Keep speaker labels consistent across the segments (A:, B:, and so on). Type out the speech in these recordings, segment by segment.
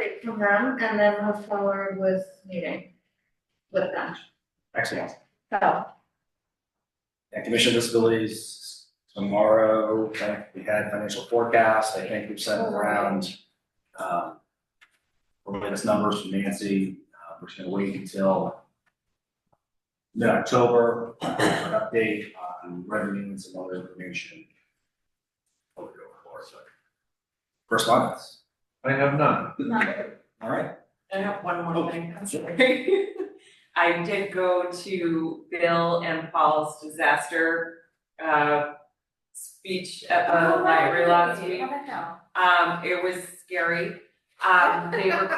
A: it from them and then move forward with meeting with them,
B: Excellent.
A: so.
B: And commission disabilities tomorrow, I think we had financial forecast, I think we've sent around. um, Latest numbers from Nancy, uh, we're just gonna wait until. Mid-October, for an update on revenue and some other information. Before we go forward, so. Correspondence,
C: I have none.
B: all right,
D: I have one more thing, I'm sorry. I did go to Bill and Paul's disaster uh speech at the library last week. Um, it was scary. Um, they were,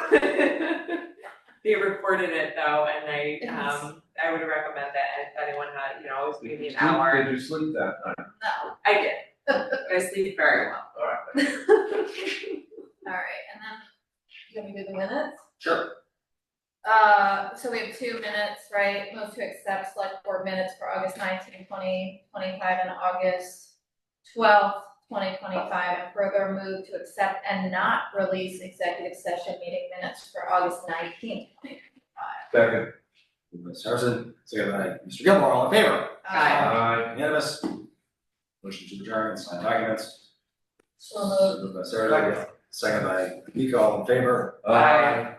D: they recorded it though, and I, um, I would recommend that if anyone had, you know, always
C: Did
D: maybe
C: you
D: an
C: sleep-
D: hour.
C: Did you sleep that night?
A: No,
D: I did. I sleep very well.
C: All right.
A: alright, and then, you want me to do the minutes?
B: Sure.
A: Uh, so we have two minutes, right, move to accept select board minutes for August 19, 20, 25, and August twelfth, twenty twenty-five, and further move to accept and not release executive session meeting minutes for August nineteenth, twenty twenty-five.
C: Second.
B: Ms. Harrison, second by Mr. Gilmore, all in favor?
A: Uh,
D: Aye.
C: Aye.
B: Unanimous. Motion to adjourn, and sign documents.
A: So moved.
B: Moved by Sarah, second by Nico, all in favor?
D: Aye.